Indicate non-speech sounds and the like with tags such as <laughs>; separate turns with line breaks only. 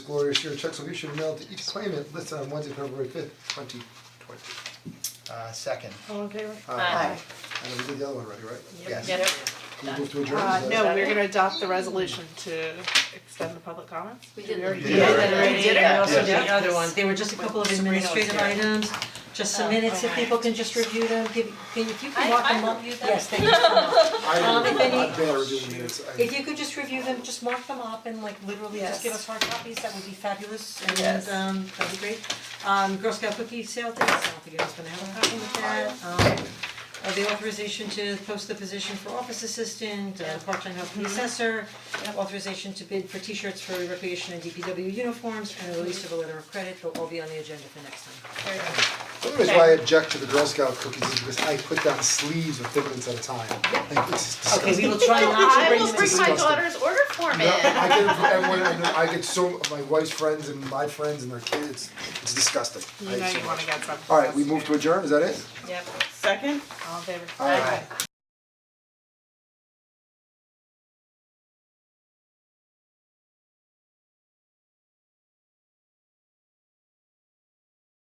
Glorious year checks will be issued and mailed to each claimant listed on Wednesday, February fifth, twenty twenty.
Uh, second,
All in favor?
Aye.
And we did the other one already, right?
yes.
Get it?
Can we move to adjourn?
Uh,
Is that-
no, we're gonna adopt the resolution to extend the public comments.
We did.
already
We
did
did
that.
already.
We did it, and also did
Yeah.
the other one, there were just a couple of
Sabrina was
administrative
here.
items, just some minutes, if people can just review them, give, can, if you
I-
can walk
I
them up,
reviewed them.
yes, thank you so
<laughs>
much. Um, if any-
I I barely do minutes, I
If you could just review them, just mark them up and like literally just give us hard copies, that would be fabulous and
Yes.
um that'd be great. Um Girl Scout cookie sale dates, I don't think anyone's gonna have a copy with that, um uh, the authorization to post the position for office assistant, uh part-time health and assessor, authorization to bid for t-shirts for recreation and DPW uniforms, and the release of a letter of credit, they'll all be on the agenda for next time.
The only reason why I object to the Girl Scout cookies is because I put down sleeves of things at a time. Like, this is
Okay,
<laughs>
we
disgusting.
will try not to
I
bring
will
them
bring
in.
my
disgusting.
daughter's order form in.
No, I get it from everyone, I know, I get so, my wife's friends and my friends and their kids, it's disgusting. I
You know
hate so
you wanna
much.
get something.
Alright, we move to adjourn, is that it?
Yep.
All in favor?
Alright.